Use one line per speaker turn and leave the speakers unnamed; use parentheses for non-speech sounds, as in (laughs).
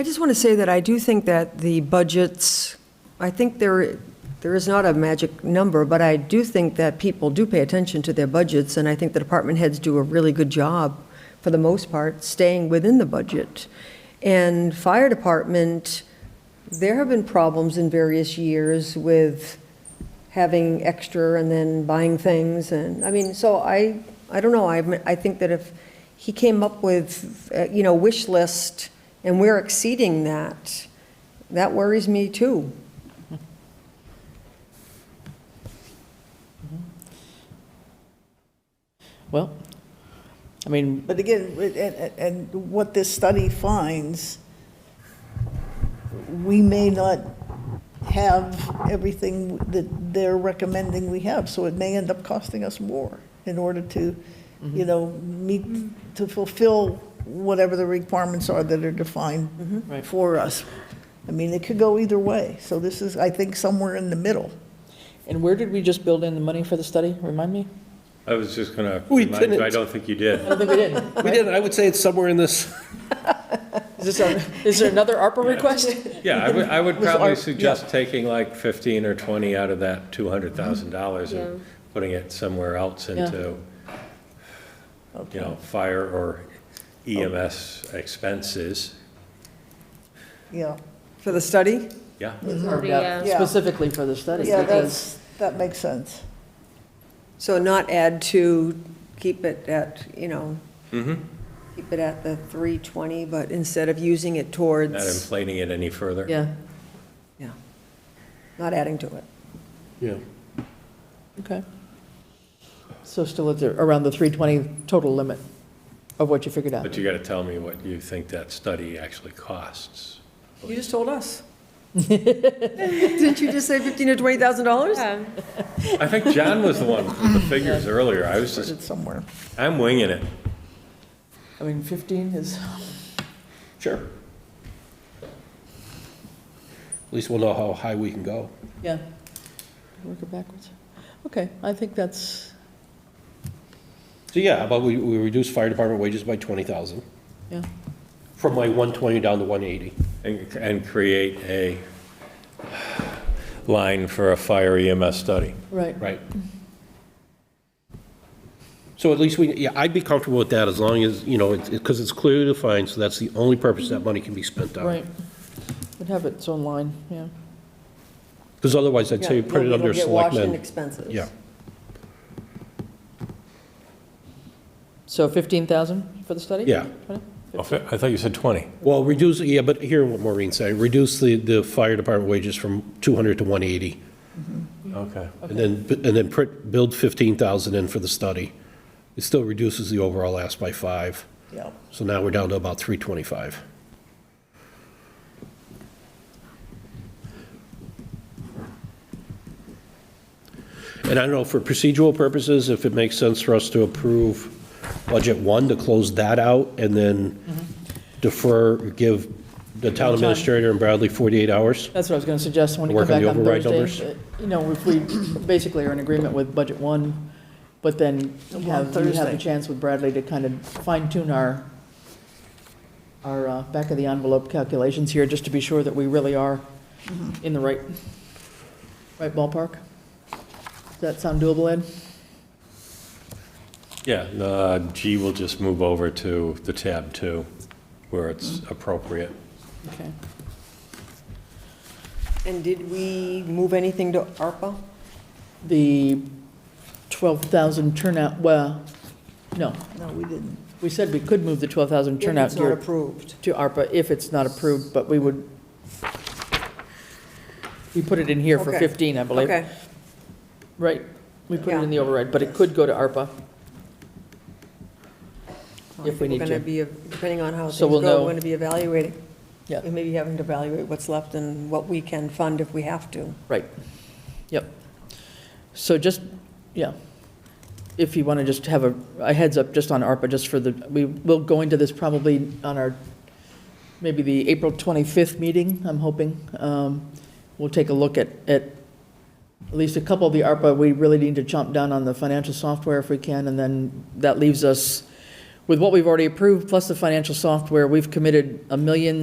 I just want to say that I do think that the budgets, I think there, there is not a magic number, but I do think that people do pay attention to their budgets, and I think the department heads do a really good job, for the most part, staying within the budget. And fire department, there have been problems in various years with having extra and then buying things, and, I mean, so I, I don't know, I, I think that if he came up with, uh, you know, wish list, and we're exceeding that, that worries me too.
Well, I mean,
But again, and, and- and what this study finds, we may not have everything that they're recommending we have, so it may end up costing us more in order to, you know, meet, to fulfill whatever the requirements are that are defined
Right.
for us. I mean, it could go either way, so this is, I think, somewhere in the middle.
and where did we just build in the money for the study? Remind me?
I was just gonna
We
remind you, I
didn't.
don't think you did.
I don't think we did.
(laughs) We did, I would say it's somewhere in this,
Is this, our- is there another ARPA request?
Yeah, I would, I
(laughs)
would
Was
probably
our-
suggest taking like 15 or 20 out of that $200,000 and putting it somewhere else into, you know, fire or
Oh.
EMS expenses.
Yeah,
For the study?
Yeah,
Or
Yeah.
that- Specifically for the study?
yeah,
because-
that's, that makes sense.
So not add to, keep it at, you know,
Mm-hmm.
keep it at the 320, but instead of using it
not
towards,
inflating it any further.
Yeah,
yeah, not adding to it.
yeah.
okay. So still at the, around the 320 total limit of what you figured out?
But you gotta tell me what you think that study actually costs.
You just told us. (laughs) Didn't you just say 15 to 20,000 dollars?
Um,
I think John was the one with the figures earlier. I was
Put
just,
it somewhere.
I'm winging it.
I mean, 15 is,
Sure. At least we'll know how high we can go.
yeah. Work it backwards. Okay, I think that's,
So yeah, how about we, we reduce fire department wages by twenty thousand,
yeah,
from like one twenty down to one eighty.
And, and create a line for a fire EMS study.
right.
Right. So at least we, yeah, I'd be comfortable with that as long as, you know, it's, because it's clearly defined, so that's the only purpose that money can be spent on.
Right. Would have its own line, yeah.
Because otherwise, I'd say you
Yeah,
put it
it'll
under
get washed in
selectmen.
expenses.
Yeah.
So 15,000 for the study?
Yeah.
20?
I thought you said 20.
Well, reduce, yeah, but hear what Maureen said, reduce the, the fire department wages from 200 to 180,
Okay.
and then, and then print, build 15,000 in for the study. It still reduces the overall ask by five,
Yeah,
so now we're down to about 325. And I don't know, for procedural purposes, if it makes sense for us to approve budget one, to close that out, and then defer, give the town administrator and Bradley 48 hours?
That's what I was going to suggest, when you come
Work on
back
the
on
override
Thursday. uh, You know, if we basically are in agreement with budget one, but then you have, you have
Thursday.
the chance with Bradley to kind of fine tune our, our uh, back of the envelope calculations here, just to be sure that we really are in the right, right ballpark. Does that sound doable, Ed?
Yeah, uh, G will just move over to the tab two, where it's appropriate.
Okay.
And did we move anything to ARPA?
The 12,000 turnout, well, no,
no, we didn't.
we said we could move the 12,000
If
turnout
It's not
gear
approved.
to ARPA if it's not approved, but we would, we put it in here for
Okay.
15, I believe.
Okay.
Right, we put it
Yeah.
in the override, but it could go to ARPA.
Well, I
If we
think
need
We're
to.
going to be, depending on how things
So
go, we're
we'll know.
going to be evaluating.
Yeah.
We may be having to evaluate what's left and what we can fund if we have to.
Right, yep. So just, yeah, if you want to just have a a heads up just on ARPA, just for the, we will go into this probably on our, maybe the April 25th meeting, I'm hoping. Um, We'll take a look at, at at least a couple of the ARPA, we really need to chomp down on the financial software if we can, and then that leaves us with what we've already approved, plus the financial software, we've committed a million